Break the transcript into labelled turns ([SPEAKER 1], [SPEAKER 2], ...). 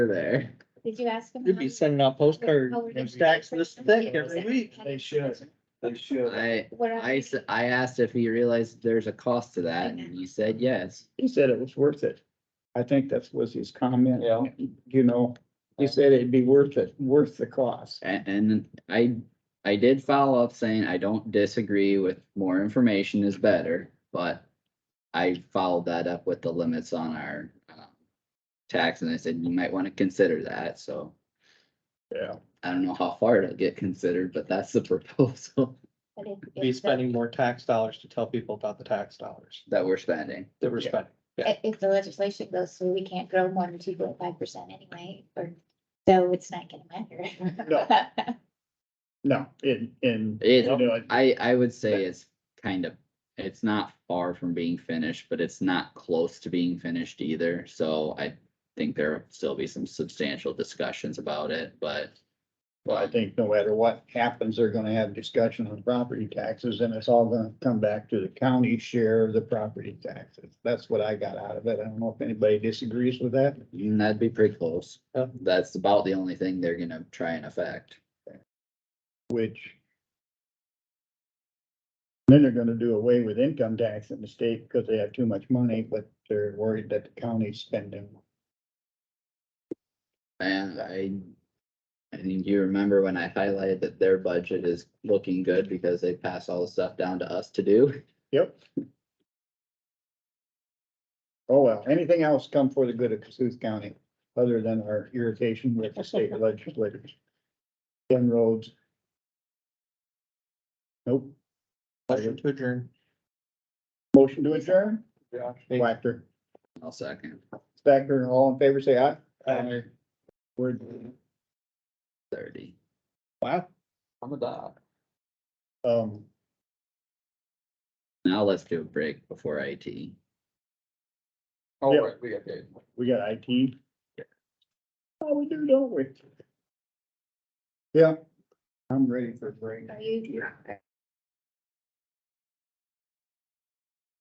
[SPEAKER 1] there.
[SPEAKER 2] Did you ask him?
[SPEAKER 3] You'd be sending out postcards and stacks this thick every week.
[SPEAKER 4] They should. They should.
[SPEAKER 1] I,
[SPEAKER 2] What
[SPEAKER 1] I, s- I asked if he realized there's a cost to that and you said yes.
[SPEAKER 3] He said it was worth it. I think that was his comment,
[SPEAKER 4] Yeah.
[SPEAKER 3] you know, he said it'd be worth it, worth the cost.
[SPEAKER 1] And, and I, I did follow up saying I don't disagree with more information is better, but I followed that up with the limits on our um, tax and I said, you might want to consider that. So
[SPEAKER 3] Yeah.
[SPEAKER 1] I don't know how far it'll get considered, but that's the proposal
[SPEAKER 2] But if- if the-
[SPEAKER 4] Be spending more tax dollars to tell people about the tax dollars
[SPEAKER 1] that we're spending.
[SPEAKER 4] that we're
[SPEAKER 3] Yeah.
[SPEAKER 4] spending.
[SPEAKER 2] i- If the legislation goes through, we can't grow more than two point five percent anyway, or, so it's not gonna matter.
[SPEAKER 3] No. No, in, in.
[SPEAKER 1] It-
[SPEAKER 3] you know,
[SPEAKER 1] I, I would say it's kind of, it's not far from being finished, but it's not close to being finished either. So I think there'll still be some substantial discussions about it, but.
[SPEAKER 3] Well, I think no matter what happens, they're gonna have discussion on property taxes and it's all gonna come back to the county share of the property taxes. That's what I got out of it. I don't know if anybody disagrees with that.
[SPEAKER 1] Mm, That'd be pretty close.
[SPEAKER 4] Yeah.
[SPEAKER 1] That's about the only thing they're gonna try and affect.
[SPEAKER 3] which then they're gonna do away with income tax in the state because they have too much money, but they're worried that the county's spending.
[SPEAKER 1] And I, I think you remember when I highlighted that their budget is looking good because they pass all the stuff down to us to do.
[SPEAKER 3] Yep. Oh, well, anything else come for the good of Cassuth County, other than our irritation with the state legislators? Ken Rhodes. Nope,
[SPEAKER 4] Motion to adjourn.
[SPEAKER 3] motion to adjourn,
[SPEAKER 4] Yeah.
[SPEAKER 3] Whacker,
[SPEAKER 1] I'll second.
[SPEAKER 3] Stacker, all in favor, say aye. We're,
[SPEAKER 1] Thirty.
[SPEAKER 3] wow,
[SPEAKER 1] On the dot.
[SPEAKER 3] um.
[SPEAKER 1] Now let's do a break before IT.
[SPEAKER 3] Oh, right, we got. We got IT. Oh, we do, don't we? Yeah, I'm ready for a break.
[SPEAKER 2] Are you?